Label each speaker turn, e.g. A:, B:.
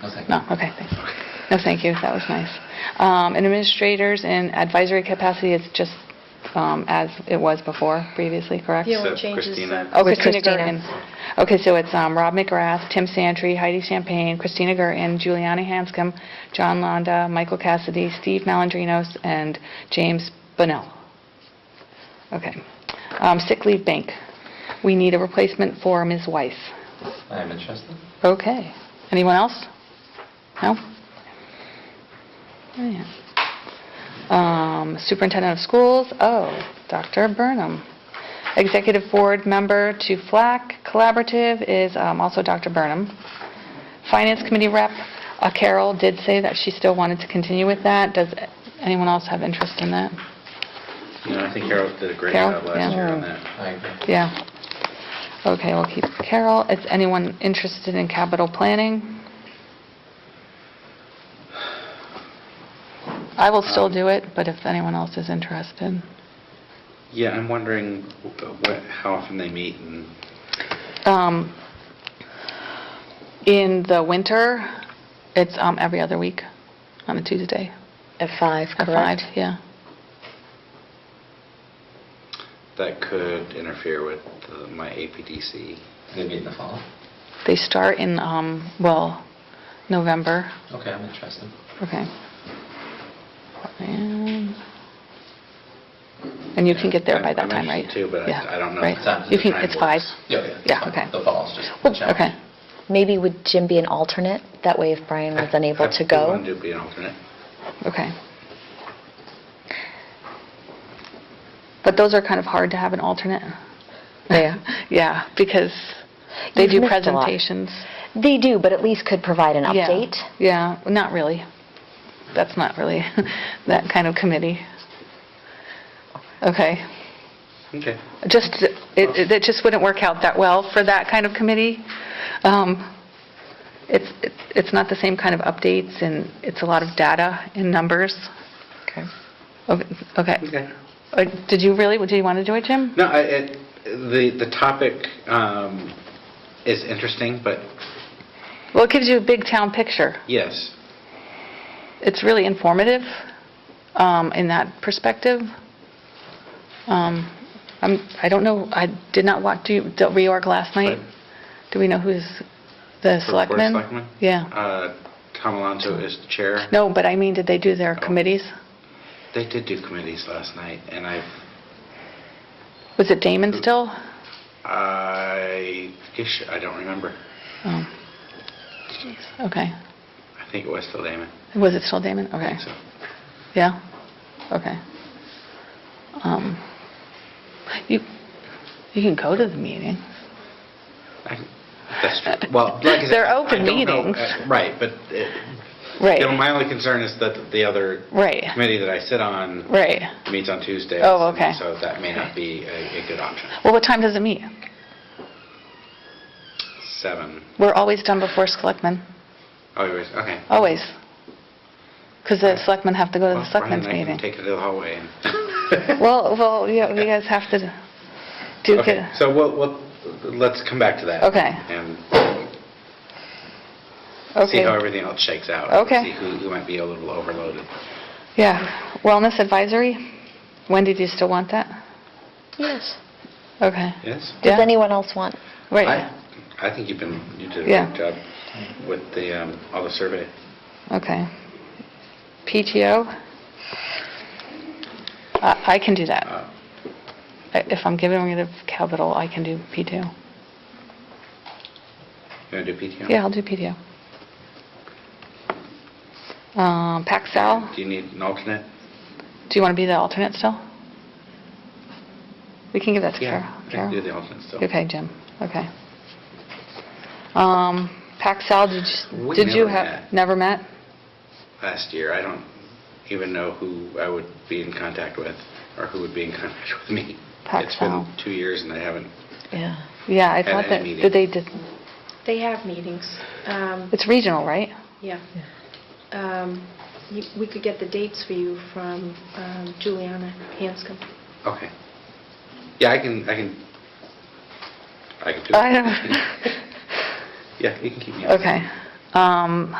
A: thank you.
B: No, okay, thanks. No, thank you, that was nice. Um, And administrators in advisory capacity, it's just um, as it was before previously, correct?
C: The only
D: Except
C: change is
D: Christina.
C: that
B: Oh,
E: With
B: Christina
E: Christina.
B: Gergen. Okay, so it's um, Rob McGrath, Tim Santry, Heidi Champagne, Christina Gergen, Giuliani Hanscom, John Londa, Michael Cassidy, Steve Malandrinos, and James Bunnell. Okay. Um, Sick leave bank. We need a replacement for Ms. Weiss.
A: I am interested.
B: Okay. Anyone else? No? Oh, yeah. Um, Superintendent of Schools, oh, Dr. Burnham. Executive Board Member to FLAC Collaborative is um, also Dr. Burnham. Finance Committee Rep, uh, Carol did say that she still wanted to continue with that. Does anyone else have interest in that?
D: You know, I think Harold did a great
B: Harold,
D: job last
B: yeah.
D: year on that.
A: I agree.
B: Yeah. Okay, we'll keep Carol. Is anyone interested in capital planning? I will still
D: Um,
E: Um,
B: do it, but if anyone else is interested.
D: Yeah, I'm wondering wh- what, how often they meet and,
B: Um, In the winter, it's um, every other week on a Tuesday
E: At five,
B: at five.
E: correct?
B: yeah.
D: that could interfere with the- my APDC.
A: They meet in the fall?
B: They start in, um, well, November.
A: Okay, I'm interested.
B: Okay. And and you can get there by that time, right?
D: I'm interested too, but
B: Yeah,
D: I- I don't know.
B: right.
D: if the
B: You can,
D: time
B: it's five.
D: works.
A: Yeah, yeah.
B: Yeah,
A: fine.
B: okay.
A: The fall's just the challenge.
B: Okay.
E: Maybe would Jim be an alternate? That way if Brian was unable to
D: I
E: go.
D: wanted to be an alternate.
B: Okay. But those are kind of hard to have an alternate.
E: Yeah.
B: Yeah, because they
E: You've
B: do
E: missed a lot.
B: presentations.
E: They do, but at least could provide an
B: Yeah.
E: update.
B: Yeah, not really. That's not really that kind of committee. Okay.
D: Okay.
B: Just, it- it it just wouldn't work out that well for that kind of committee. Um, It's it's not the same kind of updates, and it's a lot of data and numbers.
E: Okay.
B: Okay. Okay.
D: Okay.
B: Uh, Did you really, did you want to do it, Jim?
D: No, I, it, the, the topic, um, is interesting, but
B: Well, it gives you a big town picture.
D: yes.
B: It's really informative um, in that perspective. Um, I'm- I don't know, I did not watch do you- the reorg last night.
D: Right.
B: Do we know who's the
D: For Board of
B: selectman?
D: Selectmen?
B: Yeah.
D: Uh, Tom Alonso is the chair.
B: No, but I mean, did they do
D: Oh.
B: their committees?
D: They did do committees last night, and I've,
B: Was it Damon still?
D: I, ish, I don't remember.
B: Oh. Okay.
D: I think it was the layman.
B: Was it still Damon? Okay.
D: So,
B: Yeah? Okay. Um, You, you can go to the meeting.
D: I- That's true. Well, like I said,
B: They're
D: I- I
B: open
D: don't know,
B: meetings.
D: uh, Right, but, it- you know,
B: Right,
D: my only concern is that the other
B: right,
D: committee that I sit on
B: right.
D: meets on Tuesdays.
B: Oh,
D: and
B: okay.
D: So that may not be a, a good option.
B: Well, what time does it meet?
D: Seven.
B: We're always done before selectmen,
D: Oh, you was- okay.
B: always. Because the selectmen have to go to
D: Well,
B: the
D: Brian
B: selectmen's
D: and I can
B: meeting.
D: Take it to the hallway. and-
B: Well, well, you you guys have to do,
D: Okay,
B: get-
D: so we'll, we'll, let's come back to that.
B: Okay.
D: And see how
B: okay.
D: everything else shakes out.
B: Okay.
D: See who, who might be a little overloaded.
B: Yeah, wellness advisory, Wendy, do you still want that?
E: Yes.
B: Okay,
D: Yes?
B: Yeah.
E: Does anyone else want?
B: right,
D: I I think you've been, you did a
B: Yeah.
D: great job with the, um, all the survey.
B: okay. PTO? I I can do that.
D: Uh,
B: I- If I'm giving rid of capital, I can do PTO.
D: You want to do PTO?
B: Yeah, I'll do PTO. Um, PacSal?
D: Do you need an alternate?
B: Do you want to be the alternate still? We can give that to Carol.
D: Yeah, I can
B: Carol?
D: do the alternate still.
B: Okay, Jim, okay. Um, Paxal, did you,
D: We
B: did you
D: never
B: have,
D: met.
B: never met?
D: Last year, I don't even know who I would be in contact with or who would be in contact with me. It's been
B: Paxel.
D: two years and I haven't,
E: Yeah.
B: Yeah, I
D: At
B: thought
D: a
B: that,
D: meeting.
B: did they, did-
C: they have meetings. Um,
B: it's regional, right?
C: Yeah. Um, you- We could get the dates for you from um, Juliana Hanscom.
D: okay. Yeah, I can, I can, I can do it.
B: I don't,
D: Yeah, you can keep me. on.
B: okay. Um,